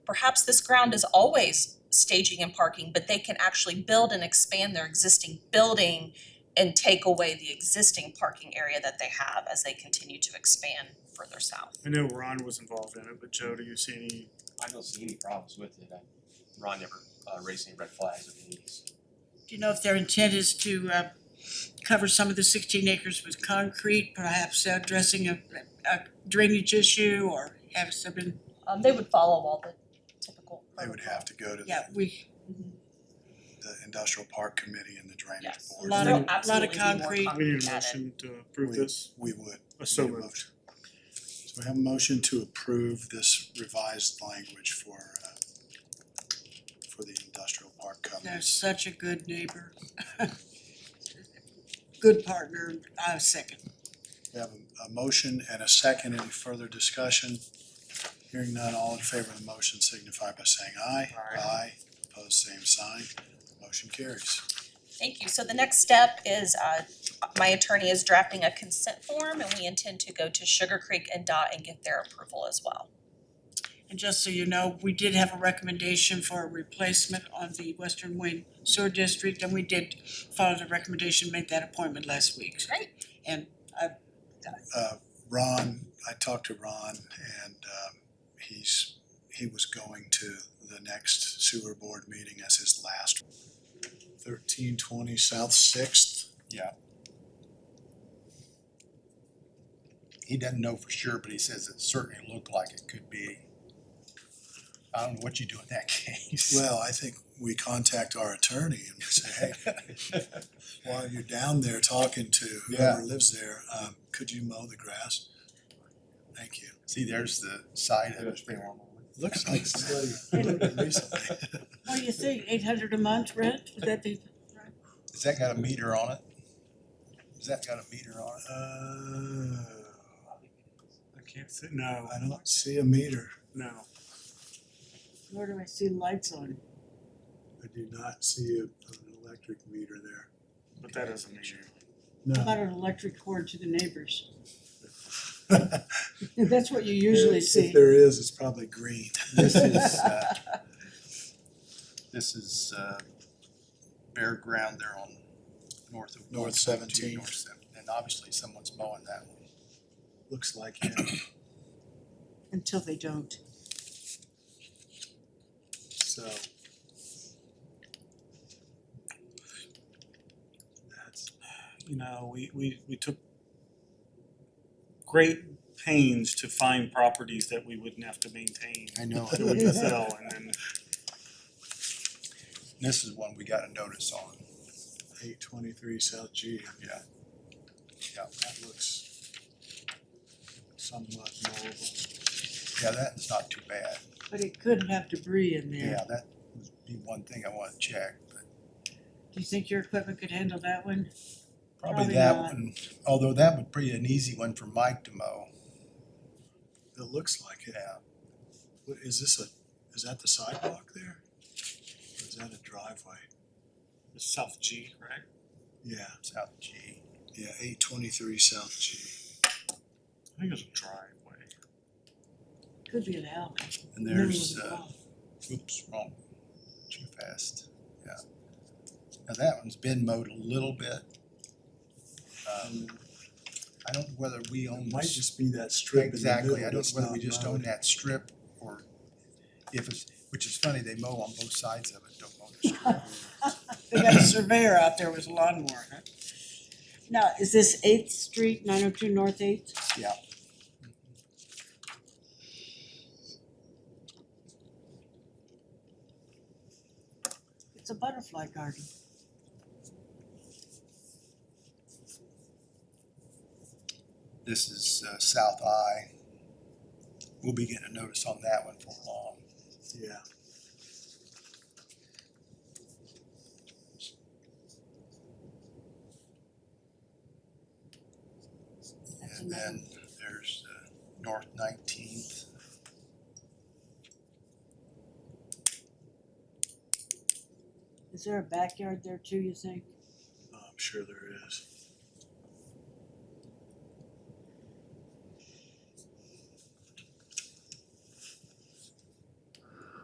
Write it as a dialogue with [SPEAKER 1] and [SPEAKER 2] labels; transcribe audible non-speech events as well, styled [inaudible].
[SPEAKER 1] perhaps this ground is always staging and parking, but they can actually build and expand their existing building and take away the existing parking area that they have as they continue to expand further south.
[SPEAKER 2] I know Ron was involved in it, but Joe, do you see any,
[SPEAKER 3] I don't see any problems with it. I- Ron never uh, raised any red flags with me. so.
[SPEAKER 4] Do you know if their intent is to uh cover some of the sixteen acres with concrete, perhaps addressing a a drainage issue or have some been,
[SPEAKER 1] Um they would follow all the typical
[SPEAKER 5] They would have to go to
[SPEAKER 4] yeah,
[SPEAKER 5] the,
[SPEAKER 4] we,
[SPEAKER 5] the industrial park committee and the drainage
[SPEAKER 1] Yes.
[SPEAKER 5] board.
[SPEAKER 4] Lot of-
[SPEAKER 1] There'll
[SPEAKER 2] lot of
[SPEAKER 1] absolutely be more
[SPEAKER 4] concrete.
[SPEAKER 2] we need a
[SPEAKER 1] added.
[SPEAKER 2] motion to approve this,
[SPEAKER 5] We would.
[SPEAKER 2] Uh, so
[SPEAKER 5] Need a
[SPEAKER 2] moved.
[SPEAKER 5] motion. So we have a motion to approve this revised language for uh for the industrial park
[SPEAKER 4] they're
[SPEAKER 5] covenants.
[SPEAKER 4] such a good neighbor. [laughs] Good partner, uh second.
[SPEAKER 5] We have a, a motion and a second. Any further discussion? Hearing none, all in favor of the motion signify by saying aye.
[SPEAKER 2] Aye.
[SPEAKER 5] Aye, opposed, same sign. Motion carries.
[SPEAKER 1] Thank you. So the next step is uh my attorney is drafting a consent form and we intend to go to Sugar Creek and DOT and get their approval as well.
[SPEAKER 4] And just so you know, we did have a recommendation for a replacement on the Western Wayne Sewer District, and we did follow the recommendation, made that appointment last week.
[SPEAKER 1] Great.
[SPEAKER 4] And
[SPEAKER 5] uh Ron, I talked to Ron and um he's, he was going to the next sewer board meeting as his last. Thirteen twenty South Sixth,
[SPEAKER 6] he doesn't know for sure, but he says it certainly looked like it could be. I don't know what you do in that [laughs] case.
[SPEAKER 5] well, I think we contact our attorney and we say, hey, while you're down there talking to whoever lives there, um could you mow the grass? Thank you.
[SPEAKER 6] See, there's the side of it there.
[SPEAKER 5] Looks like somebody moved it recently.
[SPEAKER 4] what do you think, eight hundred a month rent, would that be?
[SPEAKER 6] Has that got a meter on it? Has that got a meter on it?
[SPEAKER 5] Uh,
[SPEAKER 2] I can't say, no,
[SPEAKER 5] I don't see a meter.
[SPEAKER 2] no.
[SPEAKER 4] Where do I see lights on?
[SPEAKER 5] I do not see a, an electric meter there.
[SPEAKER 2] But that doesn't mean you're-
[SPEAKER 4] How
[SPEAKER 5] No.
[SPEAKER 4] about an electric cord to the neighbors?
[SPEAKER 5] [laughs]
[SPEAKER 4] That's what you usually
[SPEAKER 5] If- If
[SPEAKER 4] see.
[SPEAKER 5] there is, it's probably green. [laughs]
[SPEAKER 6] This is, uh, this is, uh, bare ground there on north of.
[SPEAKER 5] North
[SPEAKER 6] 17.
[SPEAKER 5] 17th.
[SPEAKER 6] North 17, And obviously someone's mowing that one.
[SPEAKER 5] Looks like it.
[SPEAKER 4] Until they don't.
[SPEAKER 5] So. That's,
[SPEAKER 2] you know, we, we, we took great pains to find properties that we wouldn't have to maintain,
[SPEAKER 6] I [laughs] know.
[SPEAKER 2] that we could sell, and then
[SPEAKER 6] This is one we got a notice on.
[SPEAKER 5] eight twenty-three South G.
[SPEAKER 6] Yeah.
[SPEAKER 5] Yeah, that looks somewhat mowable.
[SPEAKER 6] Yeah, that's not too bad.
[SPEAKER 4] But it could have debris in there.
[SPEAKER 6] Yeah, that would be one thing I wanna check, but
[SPEAKER 4] Do you think your equipment could handle that one? Probably
[SPEAKER 6] probably that
[SPEAKER 4] not.
[SPEAKER 6] one, although that would be an easy one for Mike to mow,
[SPEAKER 5] It looks like it.
[SPEAKER 6] yeah.
[SPEAKER 5] What, is this a, is that the sidewalk there? Or is that a driveway?
[SPEAKER 2] it's South G, right?
[SPEAKER 5] Yeah,
[SPEAKER 6] South G,
[SPEAKER 5] yeah, eight twenty-three South G.
[SPEAKER 2] I think it's a driveway.
[SPEAKER 4] Could be an alley.
[SPEAKER 6] and
[SPEAKER 4] middle of
[SPEAKER 6] there's,
[SPEAKER 4] the
[SPEAKER 6] uh,
[SPEAKER 4] wall.
[SPEAKER 6] oops, wrong, too fast, yeah. Now that one's been mowed a little bit. Um, I don't know whether we own.
[SPEAKER 5] It might
[SPEAKER 6] this-
[SPEAKER 5] just be that strip in the middle
[SPEAKER 6] Exactly, I don't
[SPEAKER 5] that's
[SPEAKER 6] know whether
[SPEAKER 5] not
[SPEAKER 6] we just
[SPEAKER 5] mowed.
[SPEAKER 6] own that strip or if it's, which is funny, they mow on both sides of it, don't mow the strip.
[SPEAKER 4] They got a surveyor out there with a lawnmower, huh? Now, is this Eighth Street, nine oh two North Eighth?
[SPEAKER 6] Yeah.
[SPEAKER 4] It's a butterfly garden.
[SPEAKER 6] This is uh, South Eye. We'll be getting a notice on that one for long.
[SPEAKER 5] Yeah.
[SPEAKER 4] That's
[SPEAKER 6] And
[SPEAKER 4] another
[SPEAKER 6] then there's uh, North Nineteenth.
[SPEAKER 4] Is there a backyard there too, you think?
[SPEAKER 5] I'm sure there is.